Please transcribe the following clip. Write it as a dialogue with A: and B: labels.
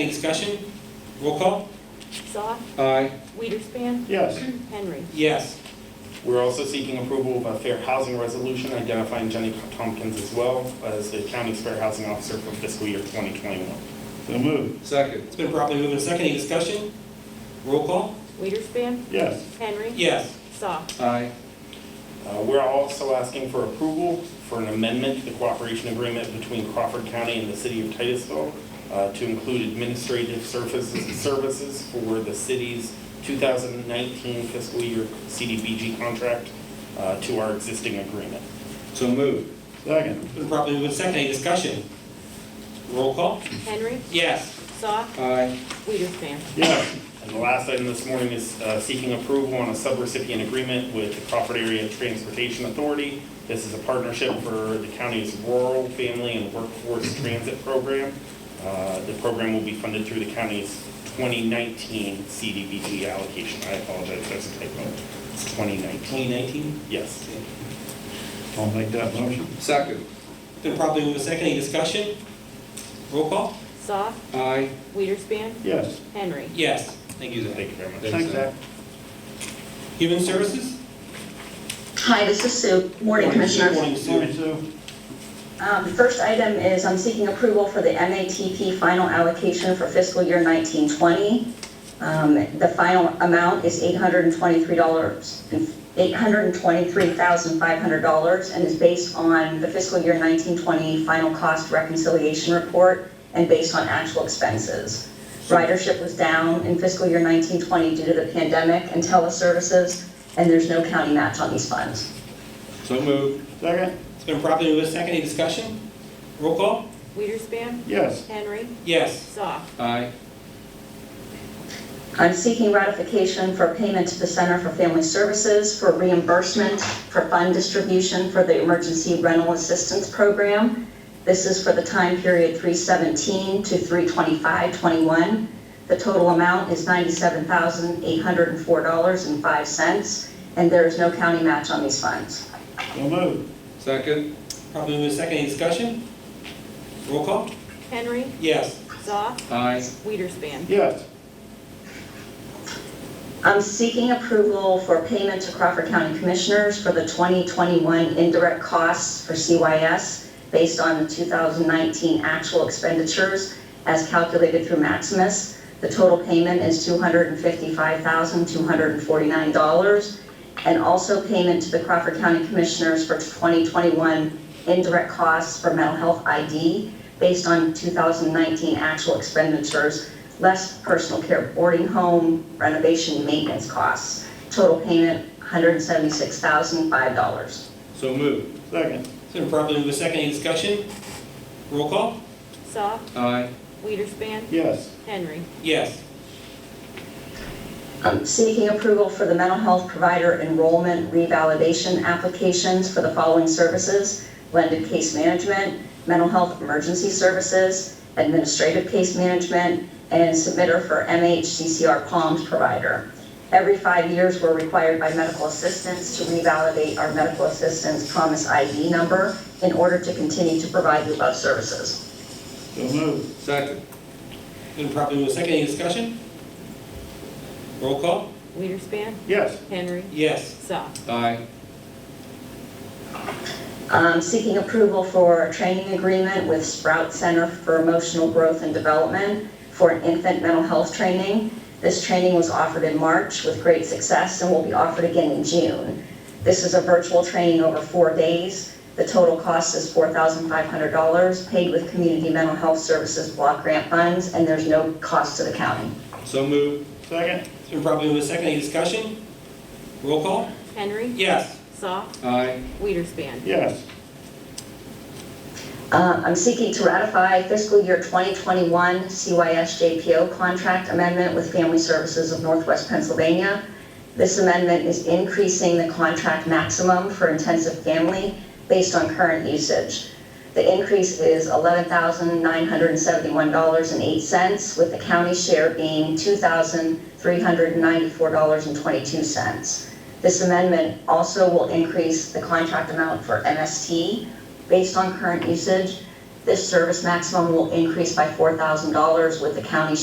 A: Any discussion? Roll call?
B: Goff,
A: Aye.
B: Weiderspan,
C: Yes.
B: Henry.
A: Yes.
C: We're also seeking approval of a fair housing resolution identifying Jenny Tompkins as well as the county's fair housing officer for fiscal year 2021.
D: So moved.
A: Second. It's been properly moved and second. Any discussion? Roll call?
B: Weiderspan,
D: Yes.
B: Henry.
A: Yes.
B: Goff,
A: Aye.
C: Uh, We're also asking for approval for an amendment to the cooperation agreement between Crawford County and the city of Titusville uh, to include administrative services, services for the city's 2019 fiscal year CDBG contract uh, to our existing agreement.
A: So moved.
D: Second.
A: It's been properly moved and second. Any discussion? Roll call?
B: Henry.
A: Yes.
B: Goff,
A: Aye.
B: Weiderspan,
D: Yes.
C: And the last item this morning is uh, seeking approval on a subrecipient agreement with the Crawford Area Transportation Authority. This is a partnership for the county's rural family and workforce transit program. Uh, The program will be funded through the county's 2019 CDBG allocation. I apologize, that's a typo. It's 2019,
A: 2019?
C: yes.
D: I'll make that motion.
A: Second. It's been properly moved and second. Any discussion? Roll call?
B: Goff,
A: Aye.
B: Weiderspan,
D: Yes.
B: Henry.
A: Yes. Thank you, Zach.
C: Thank you very much.
D: Thanks, Zach.
A: Human Services?
E: Hi, this is Sue. Morning, Commissioners.
A: Morning, Sue.
E: Um, The first item is I'm seeking approval for the MATP final allocation for fiscal year 1920. Um, The final amount is $823, and $823,500 and is based on the fiscal year 1920 final cost reconciliation report and based on actual expenses. Ridership was down in fiscal year 1920 due to the pandemic and teleservices, and there's no county match on these funds.
A: So moved.
D: Second.
A: It's been properly moved and second. Any discussion? Roll call?
B: Weiderspan,
D: Yes.
B: Henry.
A: Yes.
B: Goff,
A: Aye.
E: I'm seeking ratification for payment to the Center for Family Services for reimbursement for fund distribution for the Emergency Rental Assistance Program. This is for the time period 317 to 32521. The total amount is $97,804.05, and there is no county match on these funds.
D: So moved.
A: Second. Properly moved and second. Any discussion? Roll call?
B: Henry.
A: Yes.
B: Goff,
A: Aye.
B: Weiderspan,
D: Yes.
E: I'm seeking approval for payment to Crawford County Commissioners for the 2021 indirect costs for CYS based on the 2019 actual expenditures as calculated through Maximus. The total payment is $255,249. And also payment to the Crawford County Commissioners for 2021 indirect costs for mental health ID based on 2019 actual expenditures less personal care boarding home renovation maintenance costs. Total payment, $176,005.
A: So moved.
D: Second.
A: It's been properly moved and seconded. Any discussion? Roll call?
B: Goff,
A: Aye.
B: Weiderspan,
D: Yes.
B: Henry.
A: Yes.
E: Um, Seeking approval for the mental health provider enrollment revalidation applications for the following services: blended case management, mental health emergency services, administrative case management, and submitter for MHCCR Palms provider. Every five years, we're required by medical assistants to revalidate our medical assistants promise ID number in order to continue to provide the above services.
D: So moved.
A: Second. It's been properly moved and seconded. Any discussion? Roll call?
B: Weiderspan,
D: Yes.
B: Henry.
A: Yes.
B: Goff,
A: Aye.
E: um, seeking approval for a training agreement with Sprout Center for Emotional Growth and Development for an infant mental health training. This training was offered in March with great success and will be offered again in June. This is a virtual training over four days. The total cost is $4,500, paid with Community Mental Health Services block grant funds, and there's no cost to the county.
A: So moved.
D: Second.
A: It's been properly moved and seconded. Any discussion? Roll call?
B: Henry.
A: Yes.
B: Goff,
A: Aye.
B: Weiderspan,
D: Yes.
E: Uh, I'm seeking to ratify fiscal year 2021 CYS JPO contract amendment with Family Services of Northwest Pennsylvania. This amendment is increasing the contract maximum for intensive family based on current usage. The increase is $11,971.08, with the county share being $2,394.22. This amendment also will increase the contract amount for MST based on current usage This service maximum will increase by $4,000 with the county